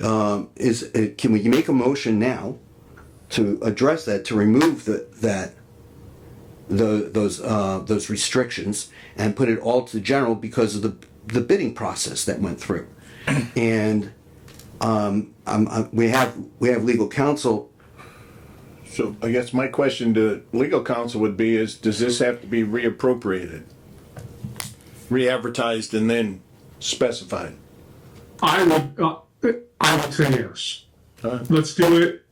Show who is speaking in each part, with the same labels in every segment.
Speaker 1: um, is, uh, can we make a motion now to address that, to remove the, that, tho- those, uh, those restrictions and put it all to general because of the, the bidding process that went through? And, um, I'm, I, we have, we have legal counsel
Speaker 2: So I guess my question to legal counsel would be is, does this have to be reappropriated? Re-advertised and then specified?
Speaker 3: I would, uh, I would say yes.
Speaker 2: Huh?
Speaker 3: Let's do it.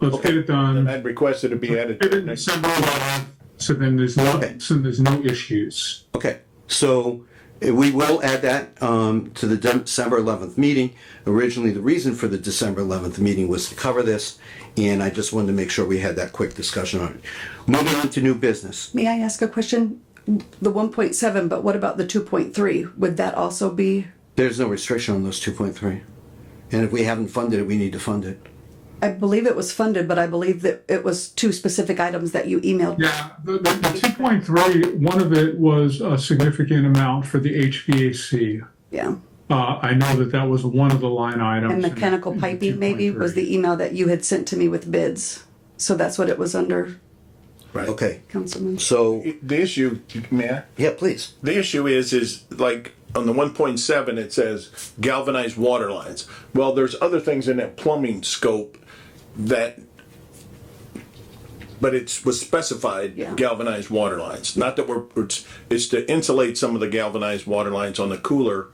Speaker 3: Let's get it
Speaker 2: And
Speaker 3: done.
Speaker 2: I'd request it to be added to
Speaker 3: Get
Speaker 2: the
Speaker 3: it in
Speaker 2: next.
Speaker 3: December 11th, so then there's no,
Speaker 1: Okay.
Speaker 3: so there's no issues.
Speaker 1: Okay, so eh, we will add that um, to the Dem- December 11th meeting. Originally, the reason for the December 11th meeting was to cover this, and I just wanted to make sure we had that quick discussion on it. Moving on to new business.
Speaker 4: May I ask a question? The one point seven, but what about the two point three? Would that also be,
Speaker 1: There's no restriction on those 2.3. And if we haven't funded it, we need to fund it.
Speaker 4: I believe it was funded, but I believe that it was two specific items that you emailed.
Speaker 3: Yeah, the, the, the 2.3, one of it was a significant amount for the HVAC.
Speaker 4: Yeah.
Speaker 3: Uh, I know that that was one of the line items.
Speaker 4: And
Speaker 3: in-
Speaker 4: mechanical
Speaker 3: in
Speaker 4: piping maybe was
Speaker 3: 2.3.
Speaker 4: the email that you had sent to me with bids. So that's what it was under,
Speaker 2: Right.
Speaker 1: Okay,
Speaker 4: Councilman.
Speaker 1: so,
Speaker 2: The issue, man,
Speaker 1: yeah, please.
Speaker 2: the issue is, is like on the one point seven, it says galvanized water lines. Well, there's other things in that plumbing scope that, but it's was specified
Speaker 4: Yeah.
Speaker 2: galvanized water lines. Not that we're, it's, it's to insulate some of the galvanized water lines on the cooler,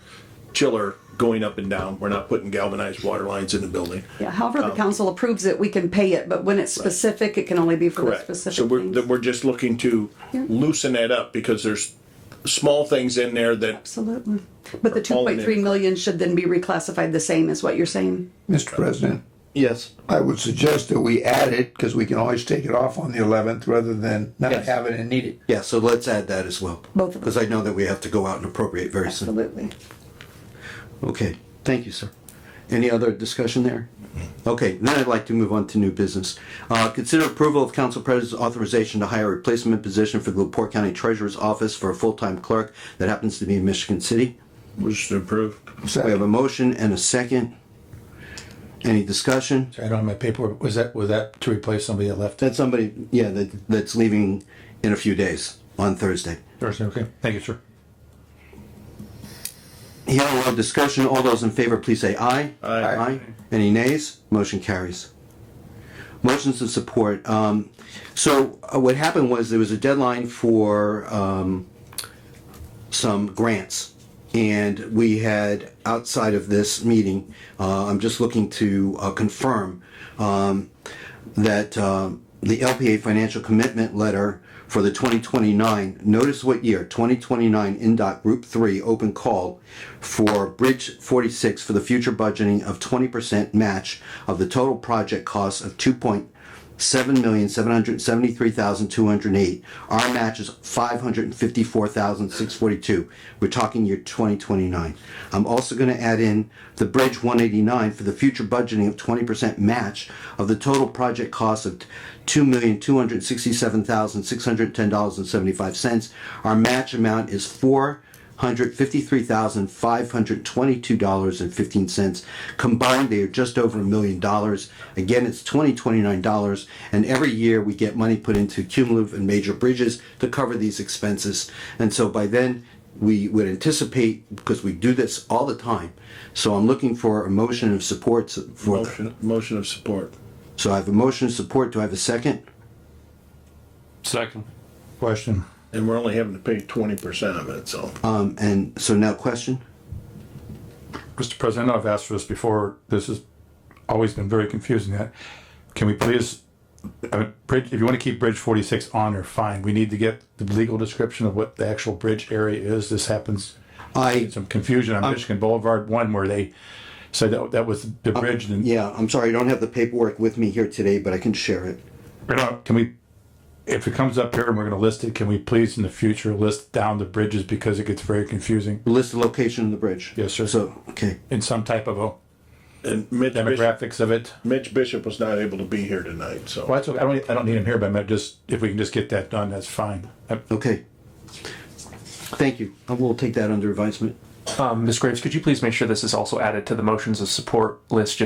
Speaker 2: chiller going up and down. We're not putting galvanized water lines in the building.
Speaker 4: Yeah, however
Speaker 2: Oh.
Speaker 4: the council approves it, we can pay it, but when it's specific, it can only be for the
Speaker 2: Correct. So
Speaker 4: specific
Speaker 2: we're, that
Speaker 4: things.
Speaker 2: we're just looking to loosen that up because there's small things in there that,
Speaker 4: Absolutely. But the two
Speaker 2: all in
Speaker 4: point
Speaker 2: it.
Speaker 4: three million should then be reclassified the same is what you're saying?
Speaker 5: Mr. President,
Speaker 1: Yes.
Speaker 5: I would suggest that we add it, because we can always take it off on the eleventh rather than not
Speaker 1: Yes.
Speaker 5: have it and need it.
Speaker 1: Yeah, so let's add that as well.
Speaker 4: Both of them.
Speaker 1: Because I know that we have to go out and appropriate very soon.
Speaker 4: Absolutely.
Speaker 1: Okay, thank you, sir. Any other discussion there? Okay, then I'd like to move on to new business. Uh, Consider approval of council president's authorization to hire a replacement position for the Lepore County Treasurer's Office for a full-time clerk that happens to be in Michigan City.
Speaker 2: was approved.
Speaker 5: So
Speaker 1: We have a motion and a second. Any discussion?
Speaker 6: I don't have my paperwork. Was that, was that to replace somebody that left
Speaker 1: That's somebody, yeah, that that's leaving in a few days, on Thursday.
Speaker 6: Thursday? Okay. Thank you, sir.
Speaker 1: Hearing no discussion, all those in favor, please say aye. Aye. Any nays? Motion carries. Motions of support. Um, so uh, what happened was there was a deadline for, um, some grants. And we had, outside of this meeting, uh, I'm just looking to uh, confirm, um, that, um, the LPA financial commitment letter for the 2029, notice what year, 2029 NDOT Group 3 open call for Bridge 46 for the future budgeting of 20% match of the total project cost of 2.7,773,208. Our match is 554,642. We're talking year 2029. I'm also going to add in the Bridge 189 for the future budgeting of 20% match of the total project cost of $2,267,610.75. Our match amount is 4 Hundred fifty-three thousand five hundred twenty-two dollars and fifteen cents Combined, they are just over a million dollars. Again, it's $2029, and every year we get money put into cumulative and major bridges to cover these expenses. And so by then, we would anticipate, because we do this all the time, so I'm looking for a motion of support for,
Speaker 2: Motion, motion of support.
Speaker 1: so I have a motion of support, do I have a second?
Speaker 7: Second.
Speaker 6: Question.
Speaker 2: And we're only having to pay twenty percent of it, so.
Speaker 1: Um, and so now question?
Speaker 6: Mr. President, I know I've asked for this before. This has always been very confusing. That Can we please, uh, bridge, if you want to keep Bridge 46 on or fine, we need to get the legal description of what the actual bridge area is. This happens,
Speaker 1: I,
Speaker 6: some confusion on Michigan Boulevard 1 where they said that, that was the bridge. and-
Speaker 1: yeah, I'm sorry, I don't have the paperwork with me here today, but I can share it.
Speaker 6: Or no, uh, Can we, if it comes up here and we're going to list it, can we please in the future list down the bridges because it gets very confusing
Speaker 1: List the location of the bridge.
Speaker 6: Yes, sir.
Speaker 1: So, okay,
Speaker 6: in some type of a
Speaker 2: And Mitch Bishop,
Speaker 6: demographics of it?
Speaker 2: Mitch Bishop was not able to be here tonight, so.
Speaker 6: Well, that's okay. I don't, I don't need him here, but I meant just, if we can just get that done, that's fine. Uh,
Speaker 1: okay. Thank you. I will take that under advisement.
Speaker 7: Um, Ms. Graves, could you please make sure this is also added to the motions of support list, just